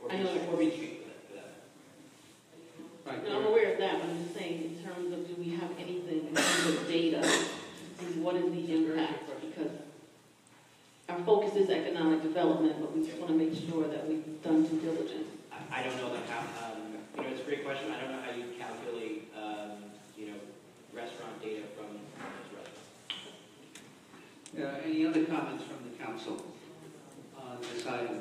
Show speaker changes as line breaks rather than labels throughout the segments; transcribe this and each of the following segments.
where we keep that, that. Right
No, I'm
there.
aware of that, but I'm just saying, in terms of, do we have anything in terms of data, and what is the impact? Because our focus is economic development, but we just want to make sure that we've done due diligence.
I, I don't know like how, um, you know, it's a great question. I don't know how you calculate, um, you know, restaurant data from those restaurants.
Uh, Any other comments from the council on this item?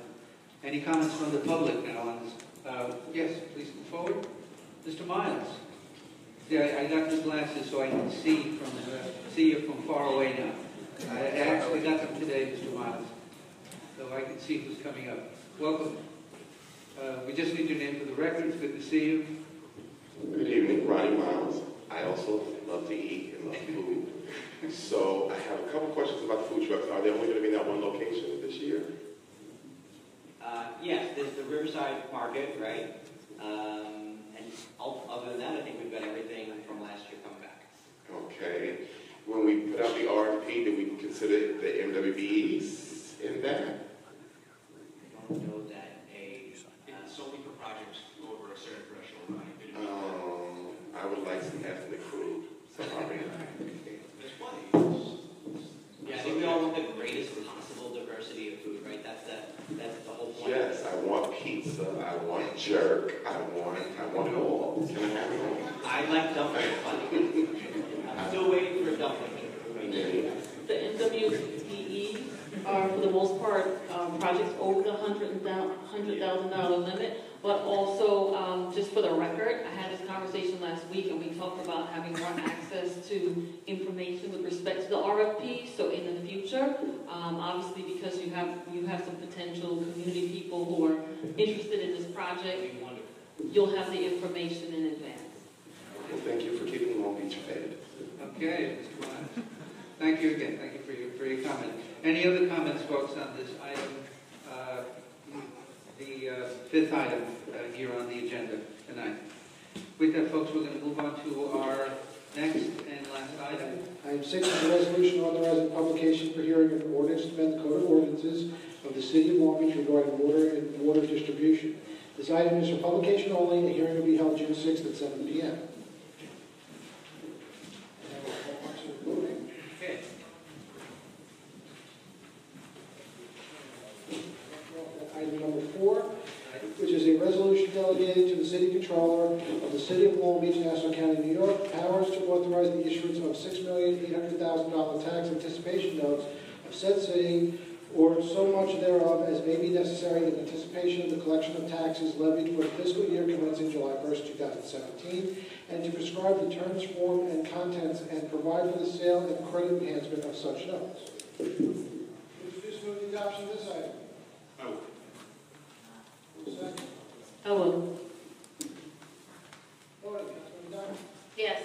Any comments from the public now on this? Uh, Yes, please come forward. Mr. Miles? Yeah, I- I got the glasses so I can see from, uh, see you from far away now. I I actually got them today, Mr. Miles, so I can see who's coming up. Welcome. Uh, We just need your name for the record, it's good to see you.
Good evening, Ronnie Miles. I also love to eat and love food. So I have a couple questions about the food trucks. Are they only going to be in that one location this year?
Uh, yes, there's the Riverside Market, right? Um, and all, other than that, I think we've got everything from last year coming back.
Okay. When we put out the RFP, did we consider the MWBs in that?
I don't know that a,
It's
uh,
solely for projects over a certain threshold, right? It-
Um, I would like some ethnic food. Sorry.
That's why it's-
yeah, I think we all want the greatest possible diversity of food, right? That's the, that's the whole point.
Yes, I want pizza. I want jerk. I want, I want it all. Can I have it all?
I like dumplings, but I'm still waiting for dumplings.
The NWPE E are, for the most part, um, projects over the hundred thousand dollar limit, but also, um, just for the record, I had this conversation last week, and we talked about having more access to information with respect to the RFP, so in the future, um, obviously, because you have, you have some potential community people who are interested in this project,
Wonderful.
you'll have the information in advance.
Well, thank you for keeping Long Beach fed.
Okay, Mr. Wise. Thank you again, thank you for your, for your comment. Any other comments, folks, on this item, uh, the uh, fifth item uh, here on the agenda tonight? With that, folks, we're going to move on to our next and last item.
Item six is a resolution authorizing publication for hearing of an ordinance to amend the code of ordinances of the city of Long Beach regarding water and water distribution. This item is for publication only, and the hearing will be held June sixth at seven P M.
Okay.
uh, Item number four,
Item-
which is a resolution delegated to the city controller of the city of Long Beach, Nassau County, New York, powers to authorize the issuance of six million eight hundred thousand dollar tax anticipation notes of said city or so much thereof as may be necessary in anticipation of the collection of taxes levied for the fiscal year commencing July first, two thousand seventeen, and to prescribe the terms, form, and contents, and provide for the sale and credit enhancement of such notes. Introduce move the adoption of this item.
Oh,
Second.
Hello?
Voting, Councilman Dodd.
Yes.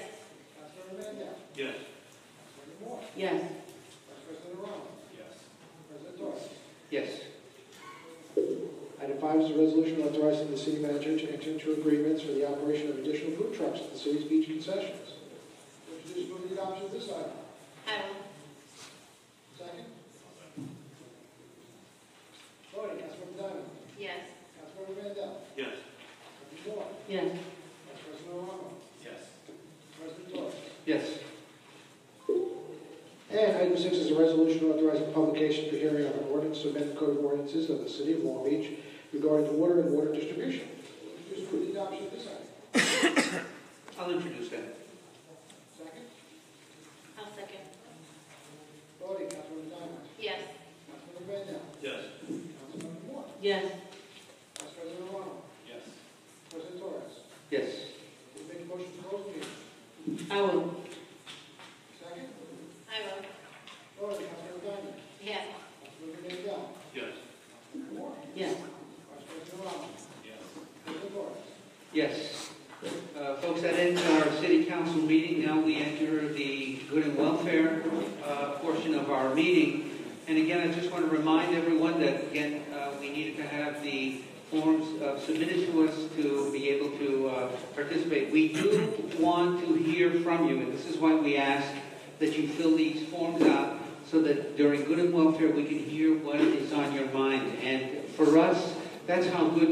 Councilmember Mandel.
yes.
Councilmember Moore.
Yes.
Vice President Obama.
Yes.
President Torres.
Yes.
Item five is a resolution authorizing the city manager to enter into agreements for the operation of additional food trucks at the city's beach concessions. Introduce move the adoption of this item.
Hello?
Second. Voting, Councilmember Diamond.
Yes.
Councilmember Mandel.
Yes.
Councilmember Moore.
Yes.
Vice President Obama.
Yes.
President Torres.
Yes.
And item six is a resolution authorizing publication for hearing of an ordinance to amend the code of ordinances of the city of Long Beach regarding the water and water distribution. Introduce for the adoption of this item.
I'll introduce that.
Second.
I'll second.
Voting, Councilmember Diamond.
Yes.
Councilmember Mandel.
Yes.
Councilmember Moore.
Yes.
Vice President Romano.
Yes.
President Torres.
Yes.
Will you make a motion to close the meeting?
I will.
Second.
I will.
Voting, Councilmember Diamond.
Yes.
Councilmember Mandel.
Yes.
Councilmember Moore.
Yes.
Vice President Romano.
Yes.
President Torres.
Yes. Uh, Folks, that ends our city council meeting. Now we enter the good and welfare uh, portion of our meeting. And again, I just want to remind everyone that, again, uh, we needed to have the forms uh, submitted to us to be able to uh, participate. We do want to hear from you, and this is why we ask that you fill these forms out so that during good and welfare, we can hear what is on your mind. And for us, that's how good